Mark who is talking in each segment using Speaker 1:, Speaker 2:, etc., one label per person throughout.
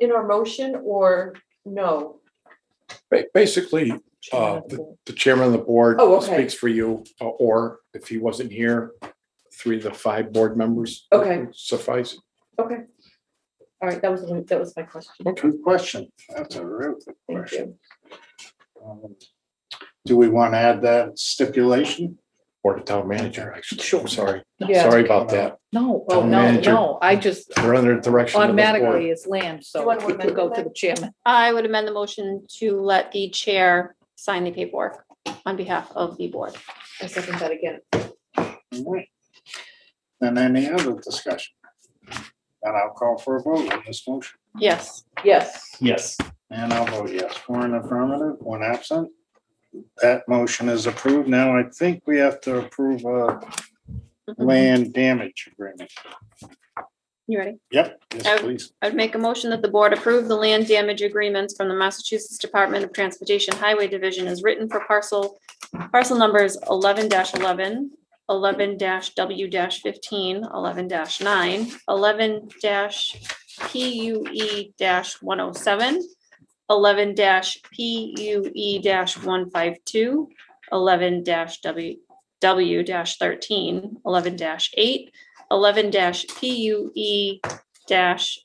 Speaker 1: in our motion or no?
Speaker 2: Ba- Basically,
Speaker 1: Chairman of the
Speaker 2: the-
Speaker 1: board?
Speaker 2: the chairman of the board
Speaker 1: Oh, okay.
Speaker 2: speaks for you, uh, or if he wasn't here, three of the five board members.
Speaker 1: Okay.
Speaker 2: would Suffice.
Speaker 1: Okay. All right, that was, the one- that was my question.
Speaker 3: Good question. That's a real good
Speaker 1: Thank
Speaker 3: question.
Speaker 1: you.
Speaker 3: Um, Do we want to add that stipulation?
Speaker 2: Or the town manager, actually.
Speaker 4: Sure.
Speaker 2: Sorry,
Speaker 1: Yeah.
Speaker 2: sorry about that.
Speaker 4: No, oh,
Speaker 2: Town
Speaker 4: no,
Speaker 2: manager.
Speaker 4: no, I just
Speaker 2: We're under the direction of the board.
Speaker 4: automatically it's land,
Speaker 1: Do
Speaker 4: so
Speaker 1: you want to
Speaker 4: it would
Speaker 1: amend
Speaker 4: go
Speaker 1: that?
Speaker 4: to the chairman.
Speaker 5: I would amend the motion to let the chair sign the paperwork on behalf of the board.
Speaker 1: I second that again.
Speaker 3: Alright. And any other discussion? And I'll call for a vote on this motion.
Speaker 5: Yes.
Speaker 1: Yes.
Speaker 6: Yes.
Speaker 3: And I'll vote yes, for an affirmative, one absent. That motion is approved. Now I think we have to approve a land damage agreement.
Speaker 5: You ready?
Speaker 3: Yep, yes,
Speaker 5: Oh.
Speaker 3: please.
Speaker 5: I'd make a motion that the board approve the land damage agreements from the Massachusetts Department of Transportation Highway Division as written for parcel, parcel numbers 11 11 11 W 15 11 nine, eleven P U E one oh seven, eleven P U E 152 11 W, W 13 11 eight, eleven P U E dash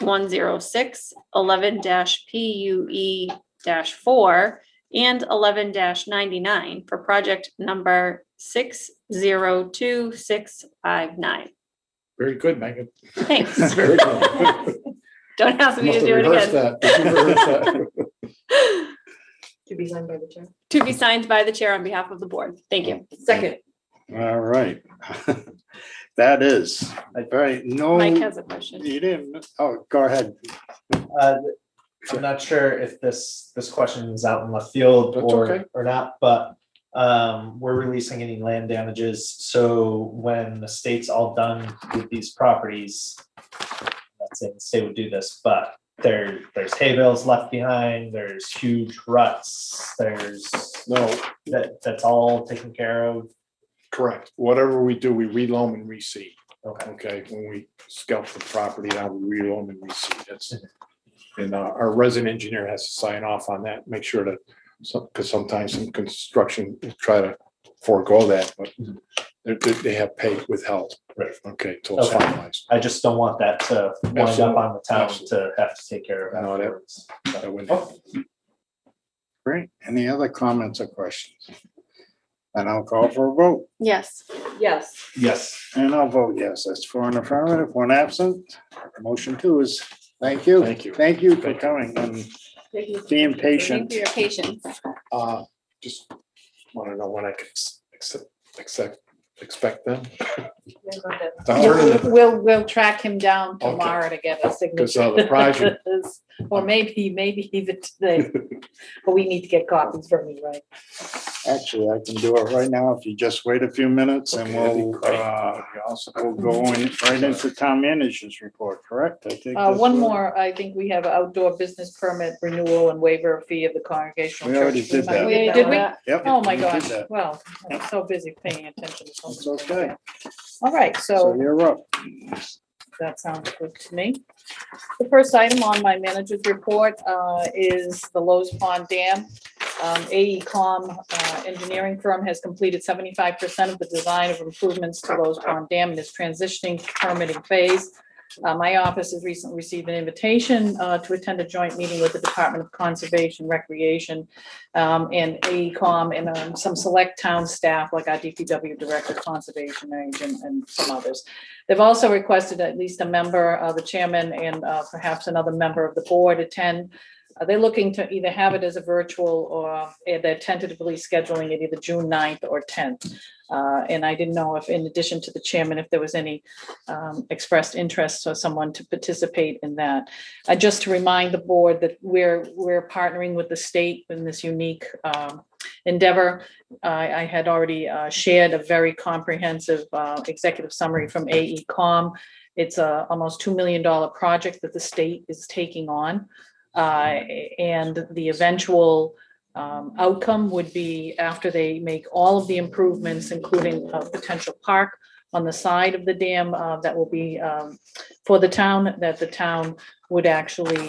Speaker 5: one zero six, eleven dash P U E dash four, and eleven dash ninety-nine for project number six zero two six five nine.
Speaker 2: Very good, Megan.
Speaker 5: Thanks.
Speaker 2: Very good.
Speaker 5: Don't ask me to
Speaker 2: Must have
Speaker 5: do it
Speaker 2: rehearsed
Speaker 5: again.
Speaker 2: that. Did you rehearse that?
Speaker 1: To be signed by the chair.
Speaker 5: To be signed by the chair on behalf of the board. Thank you.
Speaker 1: Second.
Speaker 3: All right. That is, all right, no.
Speaker 2: Um,
Speaker 5: Mike has a question.
Speaker 3: You didn't, oh, go ahead.
Speaker 6: Uh, I'm not sure if this, this question is out in left field
Speaker 2: That's okay.
Speaker 6: or, or not, but um, we're releasing any land damages. So when the state's all done with these properties, that's it, the state would do this, but there, there's hay bales left behind, there's huge ruts, there's
Speaker 2: No,
Speaker 6: that, that's all taken care of.
Speaker 2: correct. Whatever we do, we reloam and reseed.
Speaker 6: Okay.
Speaker 2: Okay, when we scalp the property now we reloan and reseed, that's. And uh, our resident engineer has to sign off on that, make sure that, so, because sometimes some construction try to forego that, but. They, they- they have pay withheld.
Speaker 6: Right.
Speaker 2: Okay, till it's
Speaker 6: Okay.
Speaker 2: finalized.
Speaker 6: I just don't want that to wind up
Speaker 2: Absolutely,
Speaker 6: on the town to
Speaker 2: absolutely.
Speaker 6: have to take care of
Speaker 2: No, that-
Speaker 6: afterwards. Oh,
Speaker 2: That wouldn't-
Speaker 3: Great. Any other comments or questions? And I'll call for a vote.
Speaker 5: Yes.
Speaker 1: Yes.
Speaker 6: Yes.
Speaker 3: And I'll vote yes. That's for an affirmative, one absent. Motion two is, thank you.
Speaker 2: Thank you.
Speaker 3: Thank you for coming and
Speaker 1: Thank you.
Speaker 3: being
Speaker 5: Thank
Speaker 3: patient.
Speaker 5: you for your patience.
Speaker 2: Uh, just want to know when I can ex- accept, accept, expect them.
Speaker 1: Yeah, got that.
Speaker 2: I'm turning the-
Speaker 4: We'll, we'll track him down
Speaker 2: Okay.
Speaker 4: tomorrow to get a
Speaker 2: Because uh,
Speaker 4: signature.
Speaker 2: the project,
Speaker 4: Or maybe, maybe even today, but we need to get copies from you, right?
Speaker 3: Actually, I can do it right now if you just wait a few minutes and
Speaker 2: Okay, that'd be
Speaker 3: we'll,
Speaker 2: great.
Speaker 3: uh, we'll go in right into town manager's report, correct? I think
Speaker 4: Uh,
Speaker 3: that's
Speaker 4: one
Speaker 3: what-
Speaker 4: more, I think we have outdoor business permit renewal and waiver fee of the congregational
Speaker 3: We
Speaker 4: church.
Speaker 3: already did that.
Speaker 4: Did we?
Speaker 3: Yep.
Speaker 4: Oh, my
Speaker 3: we did
Speaker 4: gosh,
Speaker 3: that.
Speaker 4: well, I'm so busy paying attention to
Speaker 3: It's
Speaker 4: something.
Speaker 3: okay.
Speaker 4: All right,
Speaker 3: So
Speaker 4: so
Speaker 3: you're up.
Speaker 4: that sounds good to me. The first item on my manager's report uh, is the Lowe's Pond Dam. Um, AECom uh, engineering firm has completed seventy-five percent of the design of improvements to Lowe's Pond Dam and is transitioning to permitting phase. Uh, My office has recently received an invitation uh, to attend a joint meeting with the Department of Conservation Recreation um, and AECom and um, some select town staff like our DPW Director, Conservation Agent, and some others. They've also requested at least a member, uh, the chairman and, uh, perhaps another member of the board attend. Uh, They're looking to either have it as a virtual or uh, they're tentatively scheduling it either June 9th or tenth. Uh, and I didn't know if, in addition to the chairman, if there was any, um, expressed interest or someone to participate in that. Uh, just to remind the board that we're, we're partnering with the state in this unique, um, endeavor. I, I had already uh, shared a very comprehensive uh, executive summary from AECom. It's a almost $2 million project that the state is taking on. Uh, And the eventual um, outcome would be after they make all of the improvements, including a potential park on the side of the dam uh, that will be um, for the town, that the town would actually